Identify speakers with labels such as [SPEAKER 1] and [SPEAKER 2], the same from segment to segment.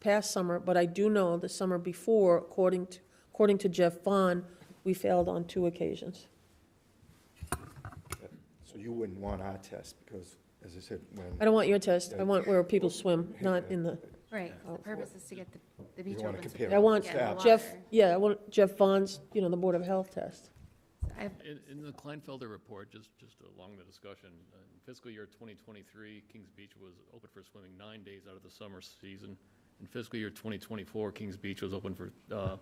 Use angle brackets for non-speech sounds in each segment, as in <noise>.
[SPEAKER 1] past summer, but I do know the summer before, according to, according to Jeff Vaughn, we failed on two occasions.
[SPEAKER 2] So you wouldn't want our test, because, as I said,
[SPEAKER 1] I
[SPEAKER 2] when,
[SPEAKER 1] don't want your test. I want where people swim, not in the,
[SPEAKER 3] Right, the purpose is to get the, the beach
[SPEAKER 2] don't wanna
[SPEAKER 3] open. so
[SPEAKER 2] compare
[SPEAKER 3] people
[SPEAKER 1] I want
[SPEAKER 3] can get in the
[SPEAKER 1] Jeff,
[SPEAKER 3] water.
[SPEAKER 1] yeah, I want Jeff Vaughn's, you know, the Board of Health test.
[SPEAKER 3] I-
[SPEAKER 4] In, in the Kleinfelder report, just, just along the discussion, uh, in fiscal year 2023, Kings Beach was open for swimming nine days out of the summer season. In fiscal year 2024, Kings Beach was open for uh,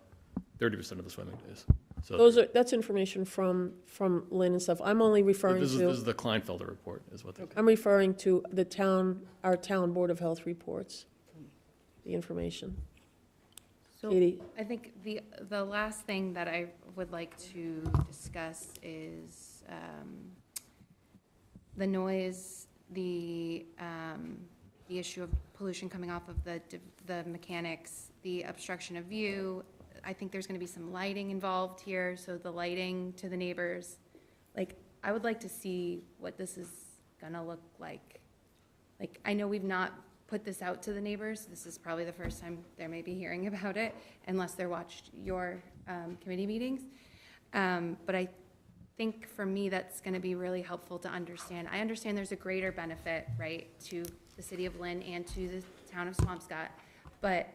[SPEAKER 4] 30% of the swimming days. So
[SPEAKER 1] Those are, that's information from, from Lynn and stuff. I'm only referring
[SPEAKER 4] This is, this
[SPEAKER 1] to,
[SPEAKER 4] is the Kleinfelder report, is what they're.
[SPEAKER 1] I'm referring to the town, our town Board of Health reports, the information.
[SPEAKER 3] So
[SPEAKER 1] Katie?
[SPEAKER 3] I think the, the last thing that I would like to discuss is um, the noise, the, um, the issue of pollution coming off of the, de- the mechanics, the obstruction of view. I think there's going to be some lighting involved here, so the lighting to the neighbors. Like, I would like to see what this is going to look like. Like, I know we've not put this out to the neighbors, this is probably the first time they may be hearing <laughs> about it, unless they're watched your um, committee meetings. Um, But I think for me, that's going to be really helpful to understand. I understand there's a greater benefit, right, to the city of Lynn and to the town of Swampscott, but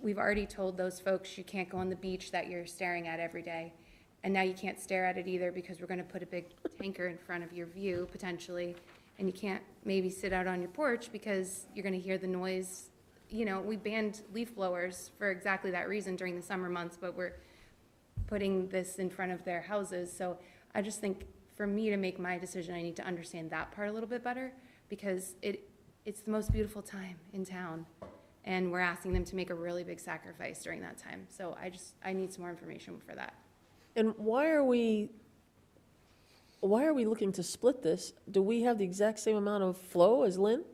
[SPEAKER 3] we've already told those folks you can't go on the beach that you're staring at every day. And now you can't stare at it either because we're gonna put a big tanker in front of your view potentially. And you can't maybe sit out on your porch because you're gonna hear the noise. You know, we banned leaf blowers for exactly that reason during the summer months, but we're putting this in front of their houses. So I just think for me to make my decision, I need to understand that part a little bit better because it, it's the most beautiful time in town. And we're asking them to make a really big sacrifice during that time. So I just, I need some more information for that.
[SPEAKER 1] And why are we, why are we looking to split this? Do we have the exact same amount of flow as Lynn?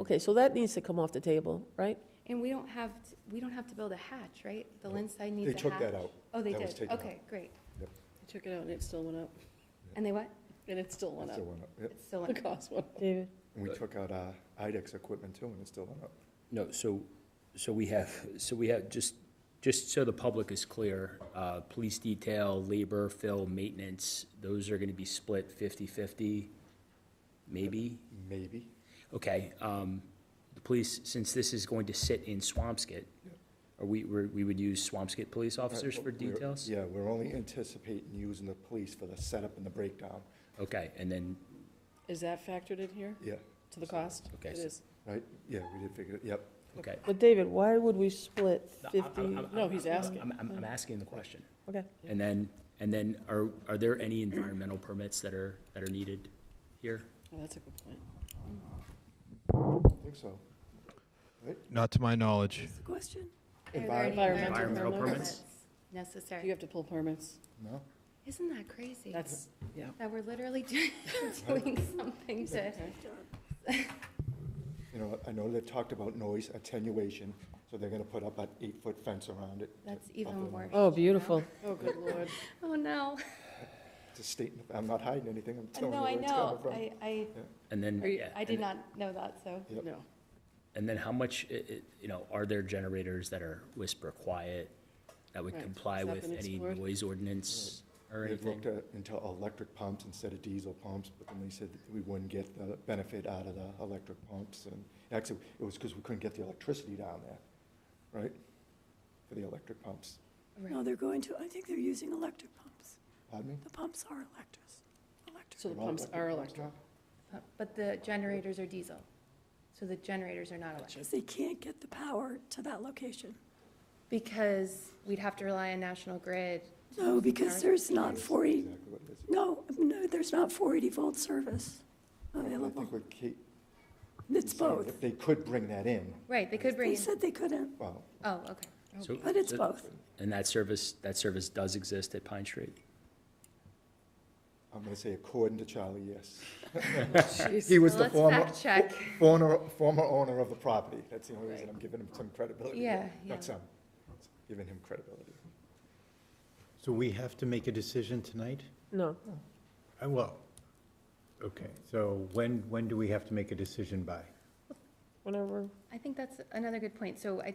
[SPEAKER 1] Okay, so that needs to come off the table, right?
[SPEAKER 3] And we don't have, t- we don't have to build a hatch, right? The Lynn side needs
[SPEAKER 2] they
[SPEAKER 3] a hatch.
[SPEAKER 2] took that out.
[SPEAKER 3] Oh, they
[SPEAKER 2] That was
[SPEAKER 3] did?
[SPEAKER 2] taken out.
[SPEAKER 3] Okay, great.
[SPEAKER 5] I took it out and it still went up,
[SPEAKER 3] And they what?
[SPEAKER 5] and it still went
[SPEAKER 2] It
[SPEAKER 5] up.
[SPEAKER 2] still went up, yep.
[SPEAKER 3] It's still,
[SPEAKER 5] The
[SPEAKER 3] in-
[SPEAKER 5] cost went up.
[SPEAKER 1] David?
[SPEAKER 2] And we took out our IDEX equipment too, and it still went up.
[SPEAKER 6] No, so, so we have, so we have, just, just so the public is clear, uh, police detail, labor, fill, maintenance, those are gonna be split fifty-fifty, maybe?
[SPEAKER 2] Maybe.
[SPEAKER 6] Okay, um, the police, since this is going to sit in Swampscot, are we, we're- we would use Swampscot police officers for
[SPEAKER 2] Right, we're-
[SPEAKER 6] details?
[SPEAKER 2] Yeah, we're only anticipating using the police for the setup and the breakdown,
[SPEAKER 6] Okay, and then,
[SPEAKER 5] Is that factored in here
[SPEAKER 2] yeah,
[SPEAKER 5] to the cost?
[SPEAKER 6] Okay,
[SPEAKER 5] It
[SPEAKER 6] so-
[SPEAKER 5] is.
[SPEAKER 2] right? Yeah, we did figure, it. yep.
[SPEAKER 6] okay.
[SPEAKER 1] But David, why would we split fifty?
[SPEAKER 5] No, he's asking.
[SPEAKER 6] I'm, I'm, I'm asking the question.
[SPEAKER 1] Okay,
[SPEAKER 6] And then, and then are, are there any environmental permits that are, that are needed here?
[SPEAKER 5] Oh, that's a good point.
[SPEAKER 2] I think so.
[SPEAKER 7] Not to my knowledge.
[SPEAKER 5] That's the question.
[SPEAKER 3] are there any
[SPEAKER 5] Environmental
[SPEAKER 3] environmental
[SPEAKER 5] permits.
[SPEAKER 3] permits
[SPEAKER 5] You
[SPEAKER 3] necessary?
[SPEAKER 5] have to pull permits.
[SPEAKER 2] No?
[SPEAKER 3] Isn't that crazy?
[SPEAKER 5] That's, yeah.
[SPEAKER 3] That we're literally <laughs> doing doing something to. <laughs>
[SPEAKER 2] You know, I know they've talked about noise attenuation, so they're gonna put up an eight-foot fence around it. to
[SPEAKER 3] That's
[SPEAKER 2] buffer
[SPEAKER 3] even
[SPEAKER 2] them.
[SPEAKER 3] worse.
[SPEAKER 1] oh, beautiful.
[SPEAKER 5] Oh, good lord.
[SPEAKER 3] Oh, no.
[SPEAKER 2] It's a statement, I'm not hiding anything, I'm telling you
[SPEAKER 3] Uh, No,
[SPEAKER 2] where
[SPEAKER 3] I
[SPEAKER 2] it's
[SPEAKER 3] know.
[SPEAKER 2] coming from.
[SPEAKER 3] I, I,
[SPEAKER 6] And then.
[SPEAKER 5] Are you-
[SPEAKER 6] yeah,
[SPEAKER 3] I did
[SPEAKER 6] and-
[SPEAKER 3] not know that, so.
[SPEAKER 2] Yep.
[SPEAKER 5] No.
[SPEAKER 6] And then how much, i- i- you know, are there generators that are whisper quiet that would
[SPEAKER 5] Right.
[SPEAKER 6] comply
[SPEAKER 5] Has that
[SPEAKER 6] with
[SPEAKER 5] been
[SPEAKER 6] any
[SPEAKER 5] explored?
[SPEAKER 6] noise ordinance or
[SPEAKER 2] They've
[SPEAKER 6] anything?
[SPEAKER 2] looked at, into electric pumps instead of diesel pumps, but then they said that we wouldn't get the benefit out of the electric pumps, and actually, it was because we couldn't get the electricity down there, right? For the electric pumps.
[SPEAKER 8] No, they're going to, I think they're using electric pumps.
[SPEAKER 2] Pardon me?
[SPEAKER 8] The pumps are electrics, electric.
[SPEAKER 5] So the
[SPEAKER 2] They're all
[SPEAKER 5] pumps are
[SPEAKER 2] pumps
[SPEAKER 5] electric.
[SPEAKER 2] now?
[SPEAKER 3] But the generators are diesel, so the generators are not electric.
[SPEAKER 8] Because they can't get the power to that location.
[SPEAKER 3] Because we'd have to rely on National Grid. Oh,
[SPEAKER 8] No, because there's not 40,
[SPEAKER 2] Exactly what it is.
[SPEAKER 8] no, no, there's not 480 volt service
[SPEAKER 2] Oh, I
[SPEAKER 8] available.
[SPEAKER 2] think what Kate
[SPEAKER 8] It's
[SPEAKER 2] said,
[SPEAKER 8] both.
[SPEAKER 2] if They could bring that in,
[SPEAKER 3] Right, they could bring
[SPEAKER 8] They
[SPEAKER 3] in,
[SPEAKER 8] said they couldn't,
[SPEAKER 2] well,
[SPEAKER 3] oh, okay.
[SPEAKER 6] So-
[SPEAKER 8] but it's
[SPEAKER 6] so-
[SPEAKER 8] both.
[SPEAKER 6] And that service, that service does exist at Pine Street?
[SPEAKER 2] I'm gonna say according to Charlie, yes.
[SPEAKER 5] Jeez.
[SPEAKER 2] He was
[SPEAKER 3] Well,
[SPEAKER 2] the
[SPEAKER 3] Let's
[SPEAKER 2] former,
[SPEAKER 3] fact check.
[SPEAKER 2] former, former owner of the property, that's the only reason I'm giving him some credibility.
[SPEAKER 3] Yeah, yeah.
[SPEAKER 2] Not some, giving him credibility.
[SPEAKER 9] So we have to make a decision tonight?
[SPEAKER 1] No,
[SPEAKER 9] Uh, Well, okay, so when, when do we have to make a decision by?
[SPEAKER 1] whenever?
[SPEAKER 3] I think that's another good point. So I